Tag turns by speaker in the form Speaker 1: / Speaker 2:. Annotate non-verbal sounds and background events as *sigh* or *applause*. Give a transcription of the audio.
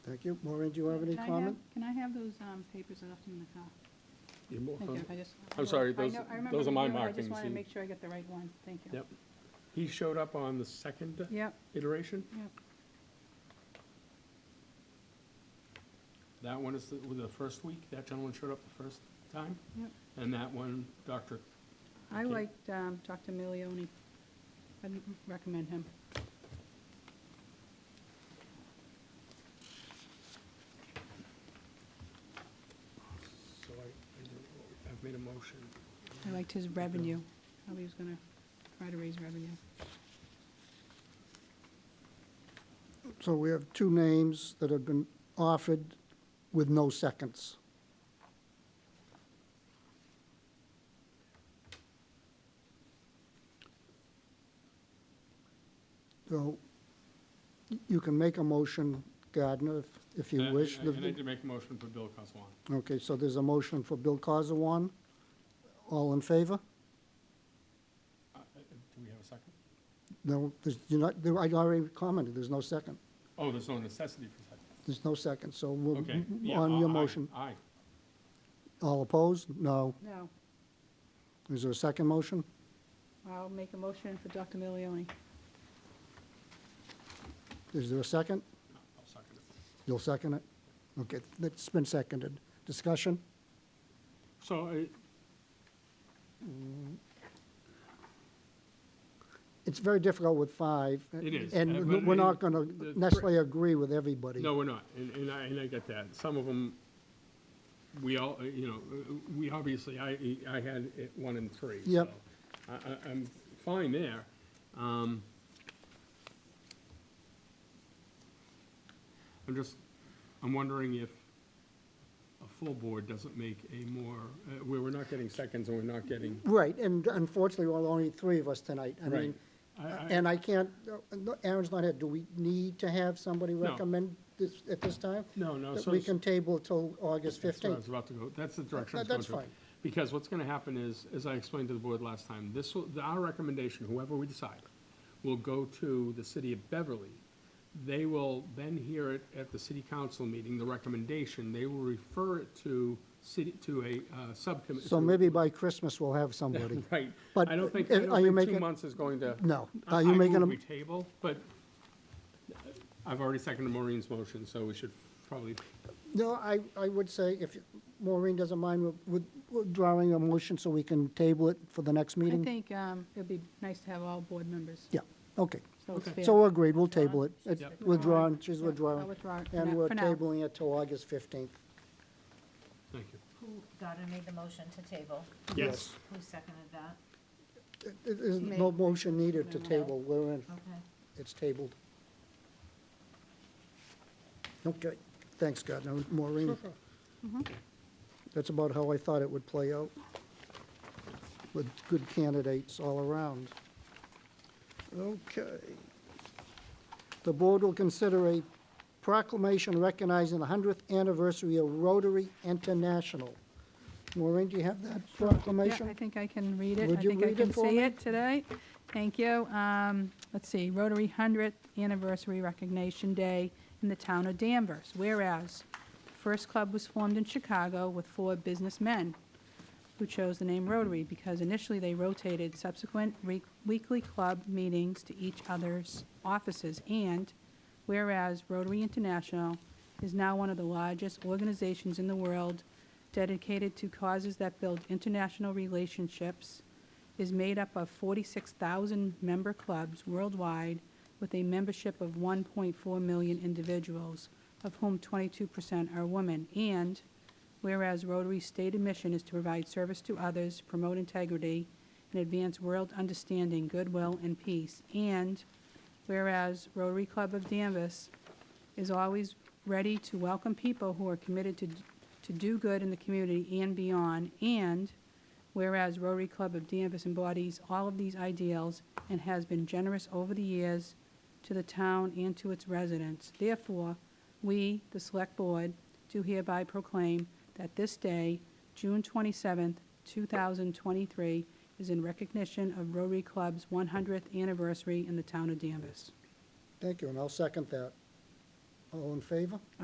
Speaker 1: Thank you. Maureen, do you have any
Speaker 2: Can I
Speaker 1: comment?
Speaker 2: Can I have those um, papers I left in the car?
Speaker 3: You mo-
Speaker 2: Thank you, I just.
Speaker 3: I'm sorry,
Speaker 2: I
Speaker 3: those-
Speaker 2: know- I remember
Speaker 3: those are
Speaker 2: the
Speaker 3: my
Speaker 2: blue, I
Speaker 3: markings.
Speaker 2: just wanted to
Speaker 3: He-
Speaker 2: make sure I get the right one, thank you.
Speaker 3: Yep. He showed up on the second
Speaker 2: Yep,
Speaker 3: iteration.
Speaker 2: yep,
Speaker 3: That one is the, with the first week, that gentleman showed up the first time.
Speaker 2: yep.
Speaker 3: And that one, Dr.,
Speaker 2: I
Speaker 3: Okay.
Speaker 2: liked um, Dr. Milioni. I'd recommend him.
Speaker 3: so I, I don't- I've made a motion.
Speaker 2: I liked his revenue, how he was gonna try to raise revenue.
Speaker 1: So we have two names that have been offered with no seconds. So you can make a motion, Gardner, if, if you
Speaker 3: And-
Speaker 1: wish.
Speaker 3: And I- and I did make a motion for Bill Coswan.
Speaker 1: Okay, so there's a motion for Bill Coswan. All in favor?
Speaker 3: Uh, uh, Do we have a second?
Speaker 1: No, there's, you're not, there- I already commented, there's no second.
Speaker 3: Oh, there's no necessity for second.
Speaker 1: There's no second, so we'll,
Speaker 3: Okay. yeah,
Speaker 1: on your
Speaker 3: aye,
Speaker 1: motion.
Speaker 3: Aye.
Speaker 1: All opposed? No.
Speaker 2: No,
Speaker 1: Is there a second motion?
Speaker 2: I'll make a motion for Dr. Milioni.
Speaker 1: Is there a second?
Speaker 3: No, I'll second it.
Speaker 1: You'll second it? Okay, that's been seconded. Discussion?
Speaker 3: So I,
Speaker 1: It's very difficult with five.
Speaker 3: It is, uh, but
Speaker 1: And we're not
Speaker 3: I-
Speaker 1: going
Speaker 3: the
Speaker 1: to necessarily agree with everybody.
Speaker 3: No, we're not, and, and I, and I get that. Some of them, we all, uh, you know, uh, we obviously, I, I had it one and three.
Speaker 1: Yep.
Speaker 3: so I, I, I'm fine there. Um, I'm just, I'm wondering if a full board doesn't make a more, uh, where we're not getting seconds and we're not getting,
Speaker 1: Right, and unfortunately, well, only three of us tonight. I mean,
Speaker 3: right. I- I-
Speaker 1: and I can't, no, Aaron's not here. Do we need to have somebody
Speaker 3: No.
Speaker 1: recommend this at this time?
Speaker 3: No, no,
Speaker 1: That
Speaker 3: so.
Speaker 1: we can table till August
Speaker 3: That's what I was
Speaker 1: 15th?
Speaker 3: about to go, that's the direction I was
Speaker 1: that-
Speaker 3: going
Speaker 1: that's
Speaker 3: to. Because what's going to happen is, as I explained to the board last time, this will, our recommendation, whoever we decide, will go to the city of Beverly. They will then hear it at the city council meeting, the recommendation, they will refer it to city, to a uh, subcommittee.
Speaker 1: So maybe by Christmas, we'll have somebody.
Speaker 3: *laughs* Right,
Speaker 1: But
Speaker 3: I don't think,
Speaker 1: uh,
Speaker 3: I
Speaker 1: are
Speaker 3: don't
Speaker 1: you
Speaker 3: think two
Speaker 1: making-
Speaker 3: months is going to.
Speaker 1: No.
Speaker 3: I-
Speaker 1: Are you
Speaker 3: I
Speaker 1: making
Speaker 3: move
Speaker 1: a-
Speaker 3: we table, but I've already seconded Maureen's motion, so we should probably,
Speaker 1: No, I, I would say if Maureen doesn't mind, we'll- we'll- we're drawing a motion so we can table it for the next
Speaker 2: I
Speaker 1: meeting?
Speaker 2: think um, it'd be nice to have all board members,
Speaker 1: Yeah, okay.
Speaker 2: so it's
Speaker 3: Okay.
Speaker 2: fair.
Speaker 1: So we're agreed, we'll table it.
Speaker 2: She's
Speaker 1: It's
Speaker 2: withdrawn.
Speaker 1: Withdrawn, she's
Speaker 2: Yeah, I'll
Speaker 1: withdrawn.
Speaker 2: withdraw it for now-
Speaker 1: And we're
Speaker 2: for now.
Speaker 1: tabling it till August 15th.
Speaker 3: thank you.
Speaker 4: Who, Goddard made the motion to table.
Speaker 3: Yes.
Speaker 4: Who seconded that?
Speaker 1: It- it- There's no
Speaker 2: May.
Speaker 1: motion needed to
Speaker 2: No.
Speaker 1: table, we're in,
Speaker 4: Okay.
Speaker 1: it's tabled. Okay, thanks, God, Now, Maureen.
Speaker 2: Mm-hmm.
Speaker 1: That's about how I thought it would play out, with good candidates all around. Okay. The board will consider a proclamation recognizing the 100th anniversary of Rotary International. Maureen, do you have that proclamation?
Speaker 2: Yeah, I think I can read it.
Speaker 1: Would you
Speaker 2: I
Speaker 1: read
Speaker 2: think I
Speaker 1: it
Speaker 2: can
Speaker 1: for
Speaker 2: see
Speaker 1: me?
Speaker 2: it today. Thank you. Um, Let's see, Rotary 100th Anniversary Recognition Day in the town of Danvers. Whereas, the first club was formed in Chicago with four businessmen who chose the name Rotary because initially they rotated subsequent re- weekly club meetings to each other's offices. And whereas Rotary International is now one of the largest organizations in the world dedicated to causes that build international relationships, is made up of 46,000 member clubs worldwide with a membership of 1.4 million individuals, of whom 22% are women. And Whereas Rotary's stated mission is to provide service to others, promote integrity, and advance world understanding, goodwill, and peace. And whereas Rotary Club of Danvers is always ready to welcome people who are committed to, to do good in the community and beyond. And whereas Rotary Club of Danvers embodies all of these ideals and has been generous over the years to the town and to its residents. Therefore, we, the Select Board, do hereby proclaim that this day, June 27, 2023, is in recognition of Rotary Club's 100th anniversary in the town of Danvers.
Speaker 1: Thank you, and I'll second that. All in favor?